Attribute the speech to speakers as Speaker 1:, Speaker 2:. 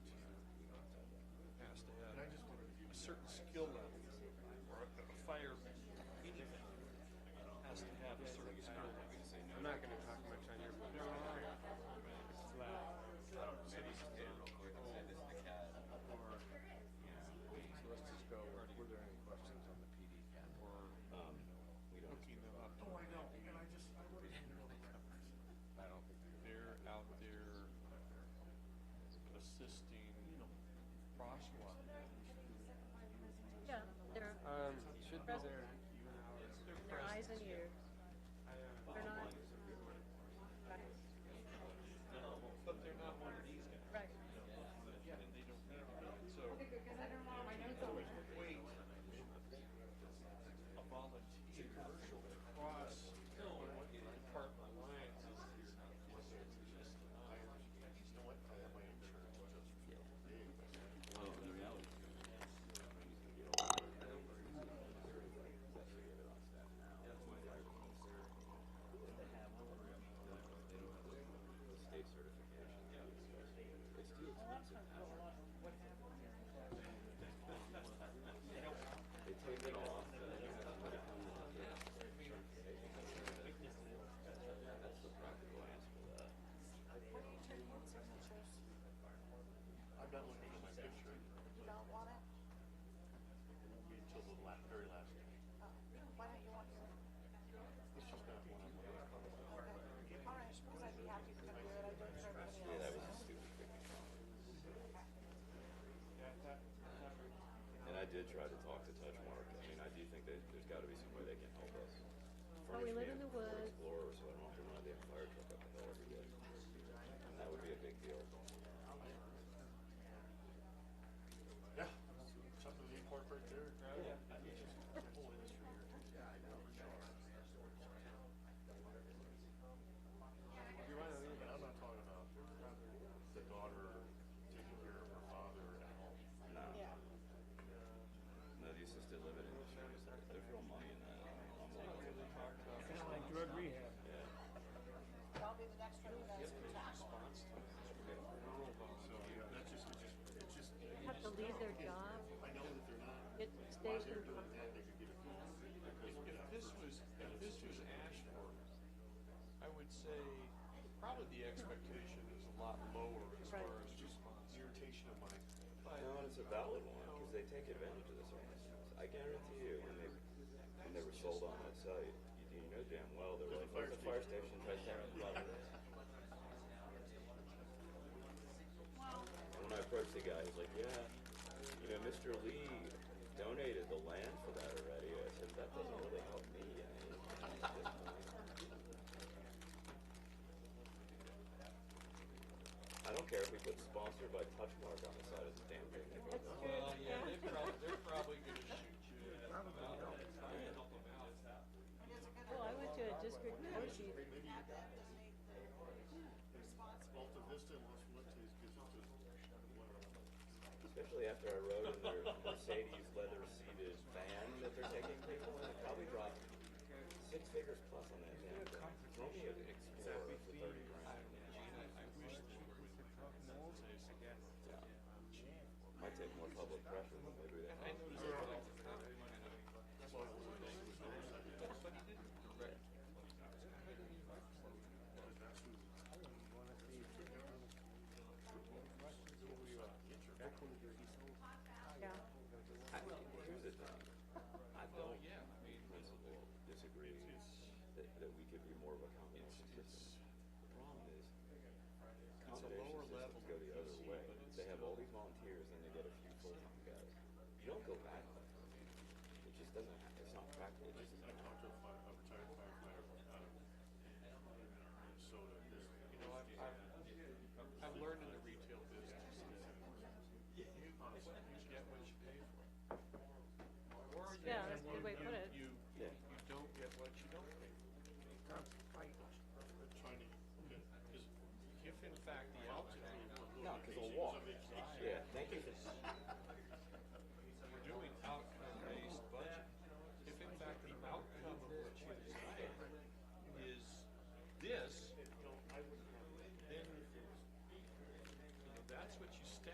Speaker 1: certain skill level, or a a fire, anything has to have a certain skill level.
Speaker 2: I'm not going to talk much on your book. It's loud. Or, so let's just go, were there any questions on the PD? Or,
Speaker 1: Hooking them up,
Speaker 3: Oh, I know, and I just, I wrote it in the middle of the reference.
Speaker 2: I don't think they
Speaker 1: they're out there assisting, you know, crosswalk.
Speaker 4: Yeah, they're,
Speaker 2: Um, should be
Speaker 4: Present.
Speaker 2: there.
Speaker 4: their eyes and ears. They're not. Right,
Speaker 1: But they're not one of these guys,
Speaker 4: right.
Speaker 1: and they don't need to be, so wait. A volunteer to cross department lines is is just not.
Speaker 5: I'm not looking at my picture.
Speaker 6: You don't want it?
Speaker 5: It won't be until the la- very last day.
Speaker 6: Uh, Why don't you want your,
Speaker 5: It's just not one I'm looking at.
Speaker 6: okay, all right, because I'd be happy to do it, I do it for everybody else.
Speaker 7: And I did try to talk to Touch Mark. I mean, I do think that there's got to be some way they can help us.
Speaker 4: Well, Oh, we
Speaker 7: Furnish
Speaker 4: live in
Speaker 7: me a
Speaker 4: the
Speaker 7: Ford
Speaker 4: woods.
Speaker 7: Explorer, so I don't have to run a damn fire truck up the hill every day. And that would be a big deal.
Speaker 5: Yeah, something to incorporate there. Yeah. The whole industry here.
Speaker 2: You wanna leave
Speaker 5: And I'm not talking about the daughter taking care of her father at home.
Speaker 7: No,
Speaker 6: Yeah,
Speaker 7: no, the assisted living industry, is- there's real money in that. uh, I mean, I'm like,
Speaker 2: Kinda like drug rehab.
Speaker 6: that'll be the next one you guys can tackle.
Speaker 5: So, yeah, that's just, it's just, it's just,
Speaker 4: They Have to leave their job,
Speaker 5: I know that they're not.
Speaker 4: it
Speaker 5: While
Speaker 4: stays
Speaker 5: they're
Speaker 4: in,
Speaker 5: doing that, they could get a, they could get a.
Speaker 1: If this was, if this was Ashford, I would say probably the expectation is a lot lower as
Speaker 4: Right.
Speaker 1: far as response.
Speaker 5: Irritation of mine.
Speaker 1: But
Speaker 7: No, and it's a valid one, because they take advantage of this ordinance. I guarantee you, when they, when they were sold on that site, you, you know damn well, they're like, there's a fire station right there on the property. And When I approached the guy, he's like, yeah, you know, Mr. Lee donated the land for that already. I said, that doesn't really help me, I mean, at this point. I don't care if we put sponsored by Touchmark on the side of the damn thing.
Speaker 1: Well, yeah, they're probably, they're probably gonna shoot you. Probably. Try and help them out.
Speaker 6: It is a good
Speaker 4: well, I
Speaker 6: idea.
Speaker 4: went to a district committee,
Speaker 6: Have them donate the responsible.
Speaker 5: Alta Vista and Los Fuentes gives us a, what,
Speaker 7: Especially after I rode in their Mercedes leather seated van that they're taking people in. I probably dropped six figures plus on that damn thing. Romeo Explorer for thirty grand. Might take more public pressure than maybe they
Speaker 1: I
Speaker 7: have.
Speaker 1: noticed that like the comment kind of. But he didn't direct.
Speaker 4: yeah.
Speaker 7: I, here's the thing. I don't, in principle, disagree that, that we could be more of a combination system. The problem is,
Speaker 1: lower
Speaker 7: combination
Speaker 1: level
Speaker 7: systems go the other
Speaker 1: PC,
Speaker 7: way.
Speaker 1: but it's
Speaker 7: They have all these volunteers and they get a few full-time guys. You don't go back. It just doesn't, ha- it's not practical. It just
Speaker 5: I
Speaker 7: isn't
Speaker 5: talked to a fire, a retired firefighter out of Minnesota, this, you know,
Speaker 1: I've, I've- I've learned in the retail business. You honestly, you get what you pay for. Or you-
Speaker 4: Yeah, that's a good way to
Speaker 1: you-
Speaker 4: put it.
Speaker 1: You, you you don't get what you don't pay for.
Speaker 5: trying to, okay, 'cause
Speaker 1: If in fact the altitude,
Speaker 7: No, because they'll walk.